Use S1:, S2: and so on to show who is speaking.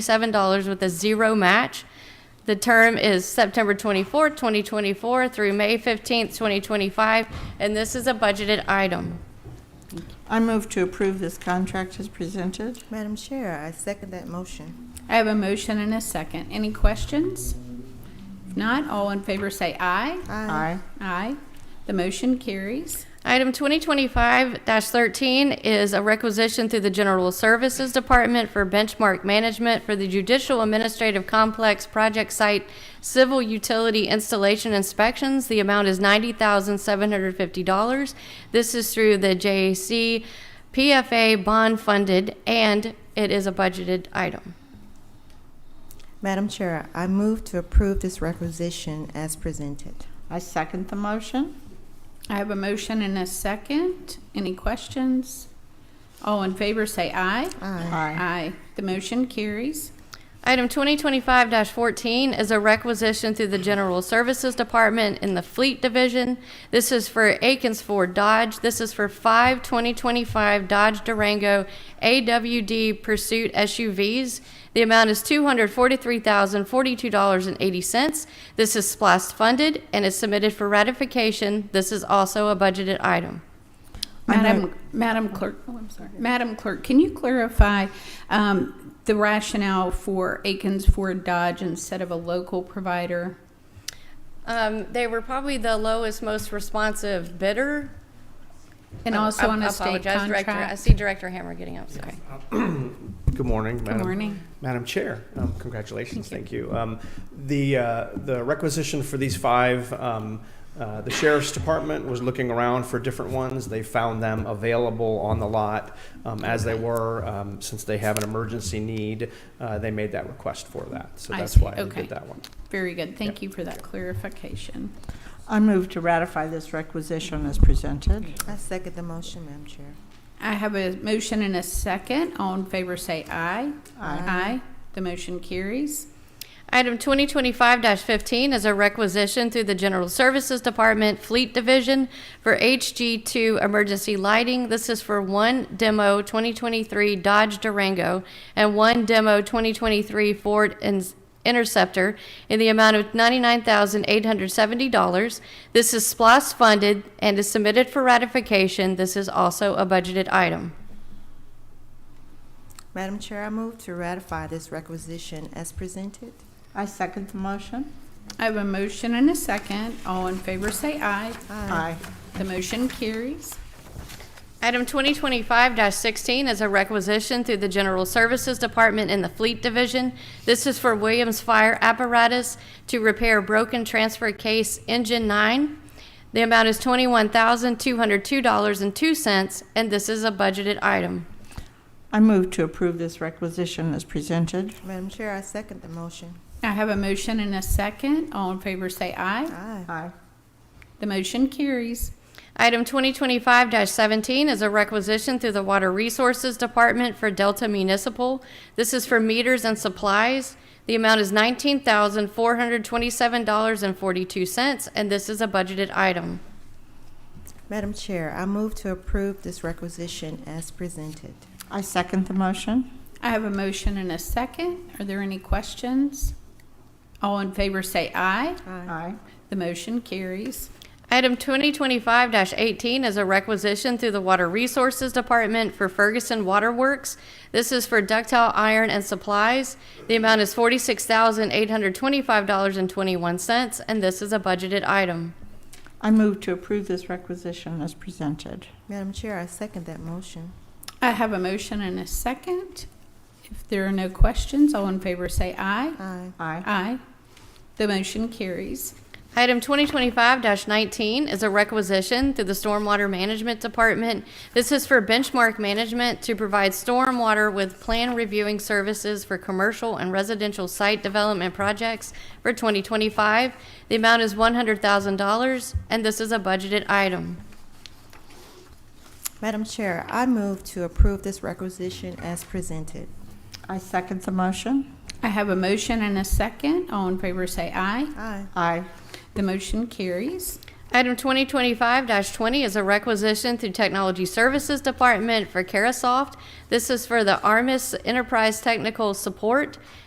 S1: Seven dollars with a zero match. The term is September 24, 2024 through May 15, 2025, and this is a budgeted item.
S2: I move to approve this contract as presented.
S3: Madam Chair, I second that motion.
S4: I have a motion and a second. Any questions? If not, all in favor say aye.
S2: Aye.
S4: Aye. The motion carries.
S1: Item 2025-13 is a requisition through the General Services Department for benchmark management for the Judicial Administrative Complex Project Site Civil Utility Installation Inspections. The amount is $90,750. This is through the JAC PFA bond funded, and it is a budgeted item.
S3: Madam Chair, I move to approve this requisition as presented.
S2: I second the motion.
S4: I have a motion and a second. Any questions? All in favor say aye.
S3: Aye.
S2: Aye.
S4: The motion carries.
S1: Item 2025-14 is a requisition through the General Services Department in the Fleet Division. This is for Aikens Ford Dodge. This is for five 2025 Dodge Durango AWD Pursuit SUVs. The amount is $243,042.80. This is SPOS funded and is submitted for ratification. This is also a budgeted item.
S2: I
S4: Madam, Madam Clerk, oh, I'm sorry. Madam Clerk, can you clarify um, the rationale for Aikens Ford Dodge instead of a local provider?
S1: Um, They were probably the lowest, most responsive bidder.
S4: And
S1: Oh,
S4: also
S1: I-
S4: on
S1: I
S4: a state
S1: apologize, Director. I
S4: contract?
S1: see Director Hammer getting up, sorry.
S5: Good morning, Madam.
S4: morning.
S5: Madam Chair, um, congratulations, thank you. Um, The, uh, the requisition for these five, um, uh, the sheriff's department was looking around for different ones. They found them available on the lot um, as they were, um, since they have an emergency need. uh, They made that request for that, so
S4: I
S5: that's
S4: see,
S5: why we
S4: okay.
S5: did that one.
S4: Very good. Thank you for that clarification.
S2: I move to ratify this requisition as presented.
S3: I second the motion, Madam Chair.
S4: I have a motion and a second. All in favor say aye.
S2: Aye.
S4: The motion carries.
S1: Item 2025-15 is a requisition through the General Services Department Fleet Division for HG2 emergency lighting. This is for one demo 2023 Dodge Durango and one demo 2023 Ford In- Interceptor in the amount of $99,870. This is SPOS funded and is submitted for ratification. This is also a budgeted item.
S3: Madam Chair, I move to ratify this requisition as presented.
S2: I second the motion.
S4: I have a motion and a second. All in favor say aye.
S2: Aye.
S4: The motion carries.
S1: Item 2025-16 is a requisition through the General Services Department in the Fleet Division. This is for Williams Fire Apparatus to repair broken transfer case Engine 9. The amount is $21,202.02, and this is a budgeted item.
S2: I move to approve this requisition as presented.
S3: Madam Chair, I second the motion.
S4: I have a motion and a second. All in favor say aye.
S3: Aye.
S2: Aye.
S4: The motion carries.
S1: Item 2025-17 is a requisition through the Water Resources Department for Delta Municipal. This is for meters and supplies. The amount is $19,427.42, and this is a budgeted item.
S3: Madam Chair, I move to approve this requisition as presented.
S2: I second the motion.
S4: I have a motion and a second. Are there any questions? All in favor say aye.
S2: Aye.
S4: The motion carries.
S1: Item 2025-18 is a requisition through the Water Resources Department for Ferguson Water Works. This is for ductile iron and supplies. The amount is $46,825.21, and this is a budgeted item.
S2: I move to approve this requisition as presented.
S3: Madam Chair, I second that motion.
S4: I have a motion and a second. If there are no questions, all in favor say aye.
S3: Aye.
S2: Aye.
S4: Aye. The motion carries.
S1: Item 2025-19 is a requisition through the Stormwater Management Department. This is for benchmark management to provide stormwater with plan reviewing services for commercial and residential site development projects for 2025. The amount is $100,000, and this is a budgeted item.
S3: Madam Chair, I move to approve this requisition as presented.
S2: I second the motion.
S4: I have a motion and a second. All in favor say aye.
S3: Aye.
S2: Aye.
S4: The motion carries.
S1: Item 2025-20 is a requisition through Technology Services Department for Carasoft. This is for the Armis Enterprise Technical Support.